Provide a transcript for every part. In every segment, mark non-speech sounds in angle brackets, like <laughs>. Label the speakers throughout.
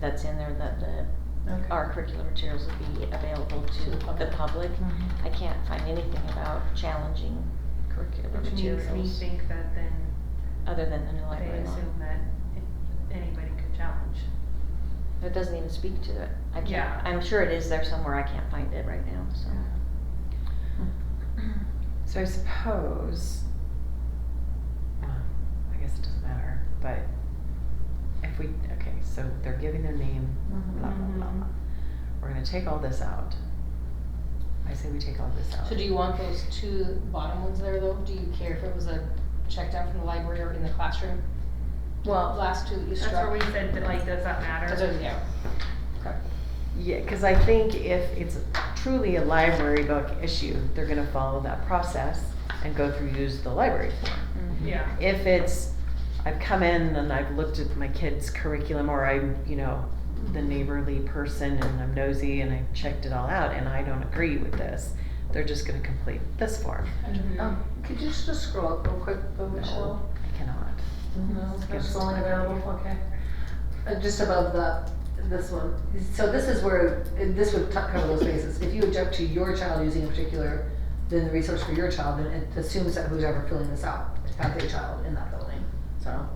Speaker 1: that's in there that the,
Speaker 2: Okay.
Speaker 1: our curriculum materials would be available to
Speaker 2: The public.
Speaker 1: the public.
Speaker 2: Mhm.
Speaker 3: Mm-hmm.
Speaker 1: I can't find anything about challenging curriculum
Speaker 3: Which makes me
Speaker 1: materials,
Speaker 3: think that then
Speaker 1: other than the new
Speaker 3: they
Speaker 1: library law.
Speaker 3: assume that it- anybody could challenge.
Speaker 1: It doesn't even speak to it. I
Speaker 3: Yeah.
Speaker 1: can't, I'm sure it is there somewhere, I can't find it right now, so.
Speaker 2: So I suppose, well, I guess it doesn't matter, but if we, okay, so they're giving their name, blah, blah, blah,
Speaker 3: Mhm.
Speaker 2: blah. We're gonna take all this out. I say we take all this out.
Speaker 4: So do you want those two bottom ones there though? Do you care if it was a checked out from the library or in the classroom?
Speaker 1: Well,
Speaker 4: Last two that you
Speaker 3: That's where we
Speaker 4: struck.
Speaker 3: said that like, does that
Speaker 4: That's what-
Speaker 3: matter?
Speaker 4: yeah.
Speaker 2: Yeah, cause I think if it's truly a library book issue, they're gonna follow that process and go through, use the library form.
Speaker 1: mhm.
Speaker 3: Yeah.
Speaker 2: if it's I've come in and I've looked at my kids' curriculum or I'm, you know, the neighborly person and I'm nosy and I checked it all out and I don't agree with this, they're just gonna complete this form.
Speaker 3: Mhm.
Speaker 5: Um, could you just scroll up real quick, though, Michelle?
Speaker 2: I cannot.
Speaker 5: No.
Speaker 2: Skip
Speaker 5: It's only
Speaker 2: slide.
Speaker 5: available, okay. Uh, Just above the, this one. So this is where, and this would t- cover those bases. If you object to your child using a particular, then the resource for your child, then it assumes that who's ever filling this out has a child in that building, so.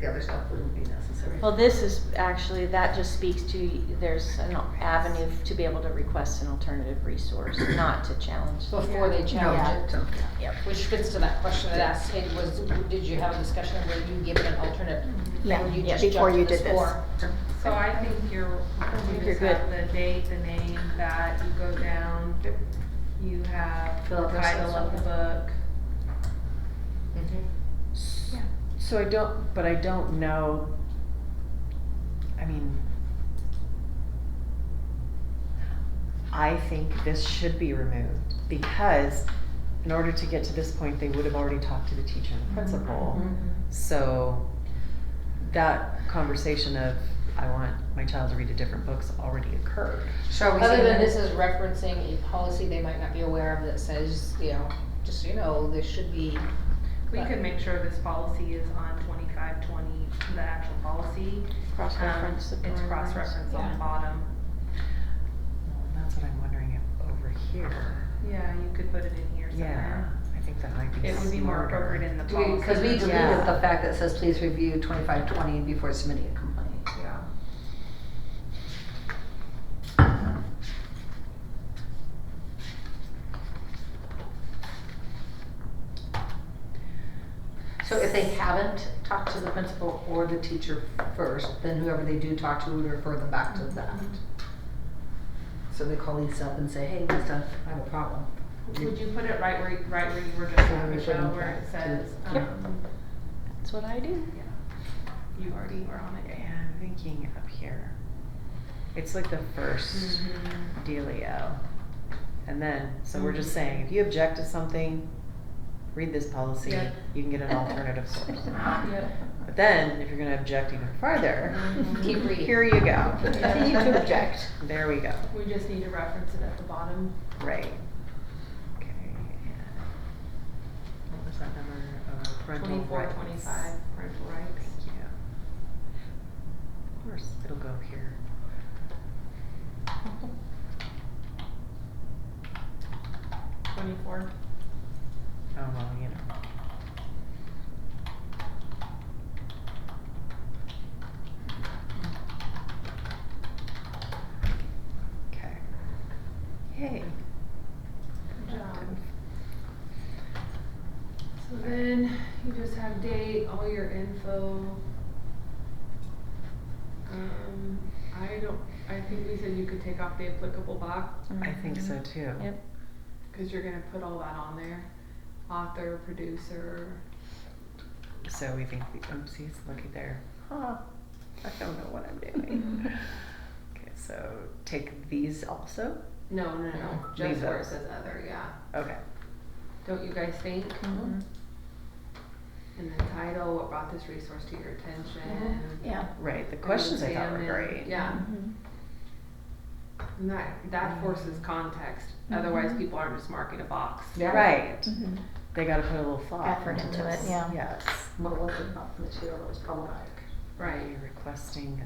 Speaker 5: The other stuff wouldn't be necessary.
Speaker 1: Well, this is actually, that just speaks to, there's an avenue to be able to request an alternative resource, not to challenge.
Speaker 4: Mm-hmm. Before they challenge it.
Speaker 5: No, don't.
Speaker 4: Which fits to that question that asked, it was, did you have a discussion where you give it an alternate?
Speaker 3: Mm-hmm.
Speaker 6: Yeah,
Speaker 4: Or you
Speaker 1: yeah,
Speaker 4: just
Speaker 6: before
Speaker 4: jumped
Speaker 6: you
Speaker 4: to
Speaker 6: did this.
Speaker 4: form?
Speaker 3: So I think you're, you
Speaker 1: you're
Speaker 3: just have the date, the name, that, you go down, you have
Speaker 5: Fill
Speaker 3: the
Speaker 5: out their
Speaker 3: title of the
Speaker 5: social.
Speaker 3: book. mm-hmm.
Speaker 2: So I don't, but I don't know, I mean, I think this should be removed because in order to get to this point, they would have already talked to the teacher and the principal.
Speaker 3: Mm-hmm.
Speaker 2: So that conversation of, I want my child to read a different book's already occurred.
Speaker 5: Shall we say
Speaker 4: Other than
Speaker 5: that?
Speaker 4: this is referencing a policy they might not be aware of that says, you know, just so you know, this should be.
Speaker 3: We
Speaker 4: But-
Speaker 3: could make sure this policy is on twenty-five twenty, the actual policy. Um,
Speaker 1: Cross-reference the
Speaker 3: It's
Speaker 1: parameters.
Speaker 3: cross-referenced on
Speaker 4: Yeah.
Speaker 3: the bottom.
Speaker 2: And That's what I'm wondering if over here,
Speaker 3: Yeah, you could put it in here
Speaker 2: yeah,
Speaker 3: somewhere.
Speaker 2: I think that might be
Speaker 3: It would be more
Speaker 2: smarter.
Speaker 3: appropriate in the
Speaker 5: Do we,
Speaker 3: policy.
Speaker 5: cause we deleted
Speaker 2: Yeah.
Speaker 5: the fact that says please review twenty-five twenty before submitting a complaint.
Speaker 3: Yeah.
Speaker 5: So if they haven't talked to the principal or the teacher first, then whoever they do talk to would refer them back to that. So they call Lisa up and say, hey, Lisa, I have a problem.
Speaker 3: Would you put it right where, you- right where you were just at,
Speaker 5: Where we
Speaker 3: Michelle,
Speaker 5: shouldn't
Speaker 3: where
Speaker 5: have
Speaker 3: it
Speaker 5: to-
Speaker 3: says,
Speaker 1: Yep.
Speaker 3: um,
Speaker 1: That's what I do.
Speaker 3: you already were on it.
Speaker 2: Yeah, I'm thinking up here. It's like the first
Speaker 3: Mm-hmm.
Speaker 2: Mm-hmm. dealio. And then, so we're just saying, if you object to something, read this policy,
Speaker 3: Yeah.
Speaker 2: you can get an alternative source. <laughs>
Speaker 3: Yep.
Speaker 2: But then, if you're gonna object even farther, <laughs>
Speaker 4: Keep reading.
Speaker 2: here <laughs> you go.
Speaker 3: Continue
Speaker 5: to object.
Speaker 2: There we go,
Speaker 3: We just need to reference it at the bottom.
Speaker 2: right. Okay. and What was that number, uh, parental rights?
Speaker 3: Twenty-four, twenty-five, parental rights.
Speaker 2: Thank you. Of course, it'll go here.
Speaker 3: Twenty-four.
Speaker 2: Oh, well, you know. Okay. Yay.
Speaker 3: Good job. So then you just have date, all your info. Um, I don't, I think we said you could take off the applicable box,
Speaker 2: I think so too.
Speaker 1: Yep.
Speaker 3: cause you're gonna put all that on there. Author, producer.
Speaker 2: So we think, the- oopsies, looky there. Huh, I don't know what I'm
Speaker 3: <laughs>
Speaker 2: doing. Okay, so take these also?
Speaker 3: No, no, no, just
Speaker 2: Leave
Speaker 3: where it
Speaker 2: those.
Speaker 3: says other, yeah.
Speaker 2: Okay.
Speaker 3: Don't you guys think?
Speaker 1: Mm-hmm.
Speaker 3: And the title, what brought this resource to your attention?
Speaker 1: Mm-hmm.
Speaker 6: Yeah.
Speaker 2: Right, the questions I thought were
Speaker 3: Examine-
Speaker 2: great.
Speaker 3: Yeah. And that, that forces context, otherwise people aren't just marking a box.
Speaker 5: Yeah.
Speaker 2: Right,
Speaker 6: Mhm.
Speaker 2: they gotta put a little thought.
Speaker 6: Effort into it,
Speaker 2: this.
Speaker 6: yeah.
Speaker 2: Yes.
Speaker 5: What was it about the material that was problematic?
Speaker 2: Are
Speaker 3: Right.
Speaker 2: you requesting